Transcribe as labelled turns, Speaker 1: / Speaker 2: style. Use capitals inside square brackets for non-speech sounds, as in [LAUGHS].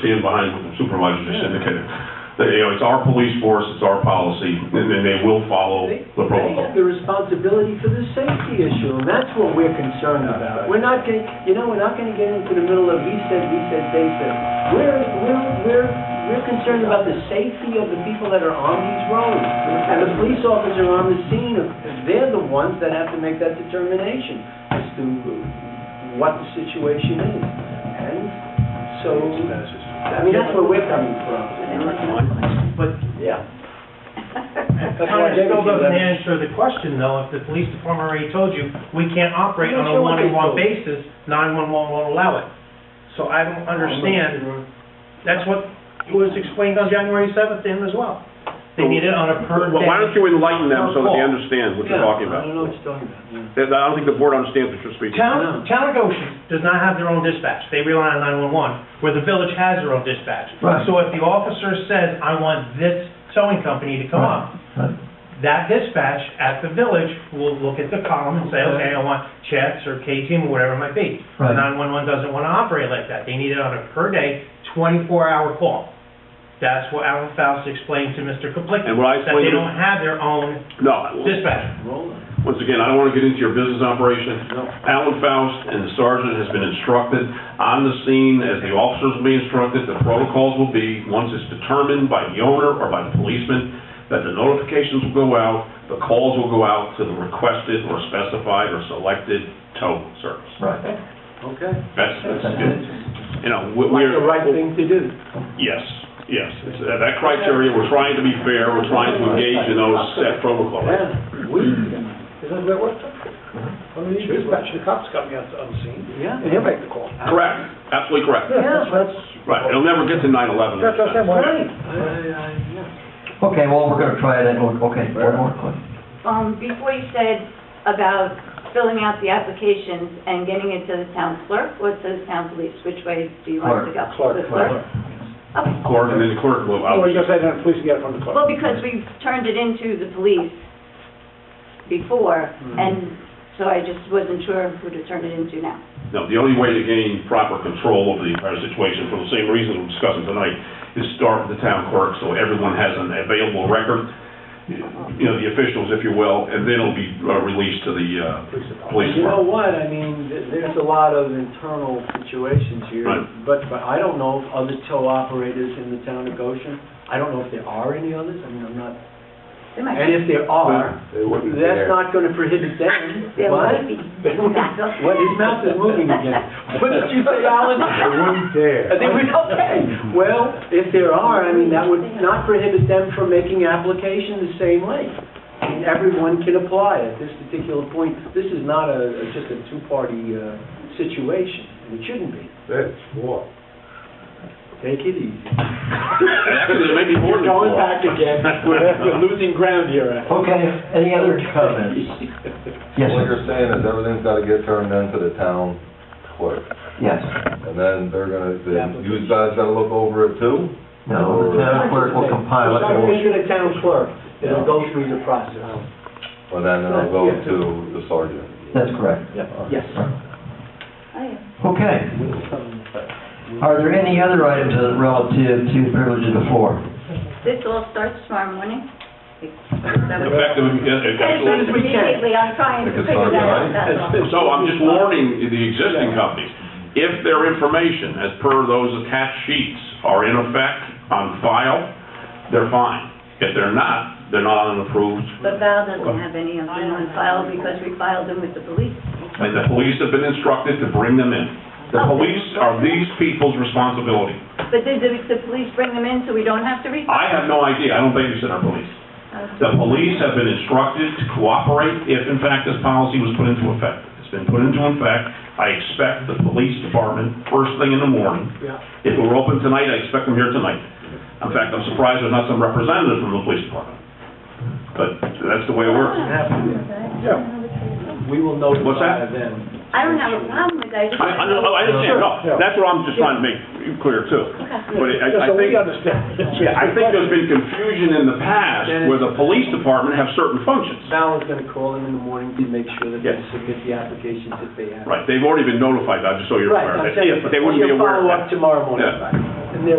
Speaker 1: stand behind what the supervisor just indicated. That, you know, it's our police force, it's our policy, and and they will
Speaker 2: Oh,
Speaker 1: follow
Speaker 3: They
Speaker 1: the
Speaker 3: they
Speaker 1: protocol.
Speaker 3: have the responsibility for the safety issue, and that's what we're concerned about. We're not going, you know, we're not going to get into the middle of we said, we said, they said. We're, we're, we're, we're concerned about the safety of the people that are on these roads. And the police officer on the scene, they're the ones that have to make that determination as to what the situation is. And so, I mean, that's where we're coming from. But, yeah.
Speaker 2: [LAUGHS]
Speaker 3: That's why I gave it
Speaker 4: Kind of still
Speaker 3: to you, Leonard.
Speaker 4: doesn't answer the question, though, if the police department already told you, we can't operate
Speaker 3: I'm
Speaker 4: on
Speaker 3: not
Speaker 4: a
Speaker 3: sure what they
Speaker 4: one-on-one
Speaker 3: told you.
Speaker 4: basis, nine-one-one won't allow it. So I don't understand, that's what was explained on January seventh to him as well. They need it on a per
Speaker 2: Well, why don't
Speaker 4: day.
Speaker 2: you enlighten them so that they understand what you're talking
Speaker 3: I
Speaker 2: about?
Speaker 3: don't know what you're talking about, yeah.
Speaker 2: That- I don't think the board understands what you're speaking.
Speaker 4: Town, town of Goshen does not have their own dispatch, they rely on nine-one-one, where the village has their own dispatch.
Speaker 5: Right.
Speaker 4: So if the officer says, I want this towing company to come up,
Speaker 5: Right.
Speaker 4: that dispatch at the village will look at the column and say, okay, I want checks or K-team or whatever it might be. The
Speaker 5: Right.
Speaker 4: 911 doesn't want to operate like that. They need it on a per-day, 24-hour call. That's what Alan Faust explained to Mr. Kaplicki,
Speaker 2: And what I
Speaker 4: that they
Speaker 2: explained to-
Speaker 4: don't have their own
Speaker 2: No,
Speaker 4: dispatcher.
Speaker 3: Roll it.
Speaker 2: once again, I don't want to get into your business operation. Alan Faust and the sergeant has been instructed on the scene, as the officers will be instructed, the protocols will be, once it's determined by the owner or by the policeman, that the notifications will go out, the calls will go out to the requested or specified or selected tow service.
Speaker 5: Right.
Speaker 3: Okay.
Speaker 2: That's, that's good. You know, we-
Speaker 3: Like
Speaker 2: we're...
Speaker 3: the right thing to do.
Speaker 2: Yes, yes. It's, uh, That criteria, we're trying to be fair, we're trying to engage in those set protocols.
Speaker 3: Yeah, we,
Speaker 6: Isn't that what, I mean, you dispatch the cops coming out to unseen,
Speaker 3: yeah.
Speaker 6: Mm-hmm. and he'll make the call.
Speaker 2: Correct, absolutely correct.
Speaker 3: Yeah.
Speaker 6: That's,
Speaker 2: Right, it'll never get to 9/11.
Speaker 6: that's what I'm saying, why,
Speaker 3: Right.
Speaker 5: Okay, well, we're gonna try it, and we'll- okay, one more question.
Speaker 7: Um, before you said about filling out the applications and getting it to the town clerk or to the town police, which way do you want it to go?
Speaker 6: Clerk.
Speaker 7: The clerk? Okay.
Speaker 2: Clerk, and then the clerk will,
Speaker 3: Oh,
Speaker 6: or
Speaker 2: obviously.
Speaker 6: you're gonna say that the police can get it from the clerk.
Speaker 7: Well, because we've turned it into the police before,
Speaker 3: Hmm.
Speaker 7: and so I just wasn't sure who to turn it into now.
Speaker 2: No, the only way to gain proper control over the entire situation, for the same reason we're discussing tonight, is start with the town clerk, so everyone has an available record, you know, the officials, if you will, and then it'll be uh, released to the uh, police
Speaker 3: You know [LAUGHS]
Speaker 2: department.
Speaker 3: what, I mean, th- there's a lot of internal situations here,
Speaker 2: Right.
Speaker 3: but, but I don't know if other tow operators in the town of Goshen, I don't know if there are any others, I mean, I'm not,
Speaker 7: There might
Speaker 3: and if
Speaker 7: be,
Speaker 3: there are, that's not gonna prohibit them,
Speaker 7: there
Speaker 3: what?
Speaker 7: might be.
Speaker 3: [LAUGHS] What, his mouth is moving
Speaker 7: [LAUGHS]
Speaker 3: again. What did you say, [LAUGHS] Alan? They wouldn't dare. They would, okay. Well, if there are, I mean, that would not prohibit them from making application the same way. And everyone can apply at this particular point. This is not a, a- just a two-party, uh, situation, and it shouldn't be.
Speaker 6: That's what.
Speaker 3: Take it easy.
Speaker 2: And Actually, there may be more than
Speaker 3: We're going
Speaker 2: four.
Speaker 3: back
Speaker 2: [LAUGHS]
Speaker 3: again. We're, we're losing ground here. Alan.
Speaker 5: Okay, any other comments? Yes,
Speaker 8: What
Speaker 5: sir.
Speaker 8: you're saying is everything's gotta get turned into the town clerk,
Speaker 5: yes.
Speaker 8: and then they're gonna, then you guys gotta look over it too?
Speaker 5: No, the town clerk will compile
Speaker 3: It's not
Speaker 5: it.
Speaker 3: going to the town clerk. It'll go through the process.
Speaker 8: Well, then it'll go to the sergeant.
Speaker 5: That's correct.
Speaker 3: Yes.
Speaker 7: Oh,
Speaker 5: Okay. Are there any other items that are relative to the privilege of the floor?
Speaker 7: This all starts tomorrow morning?
Speaker 2: Effective, yeah, absolutely.
Speaker 3: as we can.
Speaker 7: Immediately, I'm trying to
Speaker 8: Like a
Speaker 7: figure that out,
Speaker 8: Friday night?
Speaker 7: that's all.
Speaker 2: So I'm just warning the existing companies, if their information, as per those attached sheets, are in effect on file, they're fine. If they're not, they're not on an approved,
Speaker 7: But Val doesn't have any of them on file because we filed them with the police.
Speaker 2: and the police have been instructed to bring them in. The police are these people's responsibility.
Speaker 7: But did the, the police bring them in so we don't have to read?
Speaker 2: I have no idea, I don't babysit our police. The police have been instructed to cooperate if in fact this policy was put into effect. It's been put into effect, I expect the police department, first thing in the morning,
Speaker 3: Yeah.
Speaker 2: If it were open tonight, I expect them here tonight. In fact, I'm surprised there's not some representative from the police department. But that's the way it works.
Speaker 3: We will notify them.
Speaker 2: What's that?
Speaker 7: I don't have a problem with that. I just
Speaker 2: I, I know- I understand, no, that's what I'm just trying to make clear too. But I, I
Speaker 6: Just so
Speaker 2: think,
Speaker 6: we understand.
Speaker 2: yeah, I think there's been confusion in the past where the police department have certain functions.
Speaker 3: Val is gonna call them in the morning to make sure that they
Speaker 2: Yes.
Speaker 3: submit the applications if they have.
Speaker 2: Right, they've already been notified, I'm just so you're
Speaker 3: Right,
Speaker 2: aware,
Speaker 3: I'm
Speaker 2: that
Speaker 3: saying,
Speaker 2: if, they wouldn't be
Speaker 3: you'll
Speaker 2: aware of
Speaker 3: follow
Speaker 2: that.
Speaker 3: up tomorrow morning.
Speaker 2: Yeah.